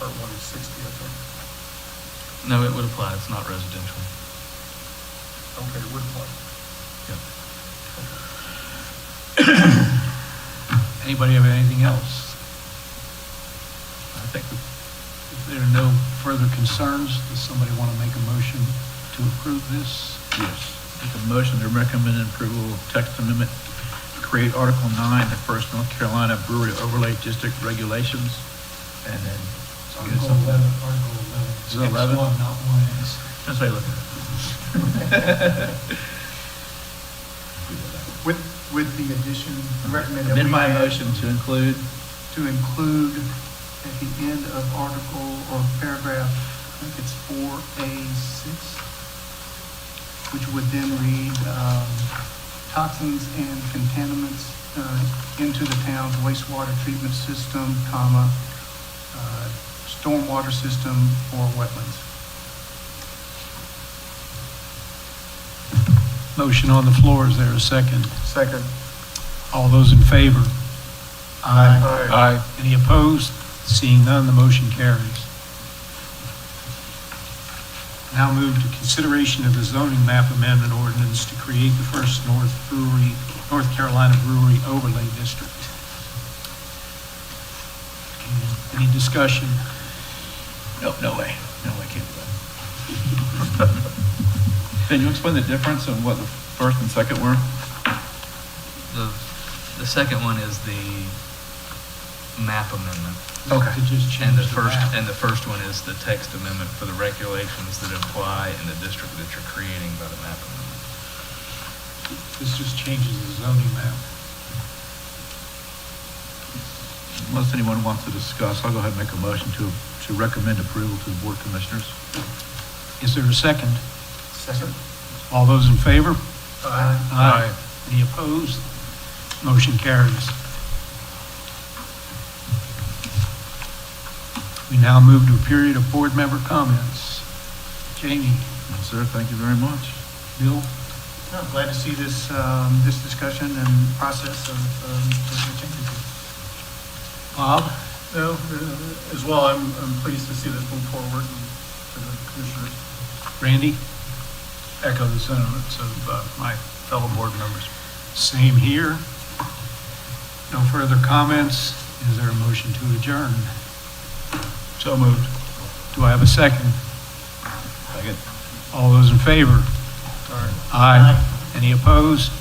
or one is sixty, I think. No, it would apply, it's not residential. Okay, would apply. Yep. Anybody have anything else? I think we If there are no further concerns, does somebody want to make a motion to approve this? Yes. Make a motion to recommend approval of text amendment to create Article 9, the First North Carolina Brewery Overlay District Regulations, and then... Article eleven, Article eleven. Is it 11? It's one, not one S. Just say, look. With, with the addition, I recommend that we. Amend my add motion to include, To include at the end of article or paragraph, I think it's four A six, which would then read, um, toxins and contaminants, uh, into the town's wastewater treatment system, comma, uh, stormwater system or wetlands. Motion on the floor, is there a second? Second. All those in favor? Aye. Any opposed? Seeing none, the motion carries. Now move to consideration of the zoning map amendment ordinance to create the First North Brewery, North Carolina Brewery Overlay District. Any discussion? no, no way, no way, can't do that. Can you explain the difference in what the first and second were? The, the second one is the map amendment. Okay. To just And change the first, map. and the first one is the text amendment for the regulations that apply in the district that you're creating by the map amendment. This just changes the zoning map. Unless anyone wants to discuss, I'll go ahead and make a motion to, to recommend approval to the Board of Commissioners. Is there a second? Second. All those in favor? Aye. Aye. Any opposed? Motion carries. We now move to a period of board member comments. Jamie, Yes, Sir, thank you very much. Bill, I'm glad to see this, um, this discussion and process of, um, of the changes. Bob, No, uh, as well, I'm, I'm pleased to see this move forward and to the uh, commissioners. Randy? Echo the sentiments of uh, my fellow board members. Same here. No further comments. Is there a motion to adjourn? So moved. Do I have a second? Second. All those in favor? All right. Aye. Any opposed?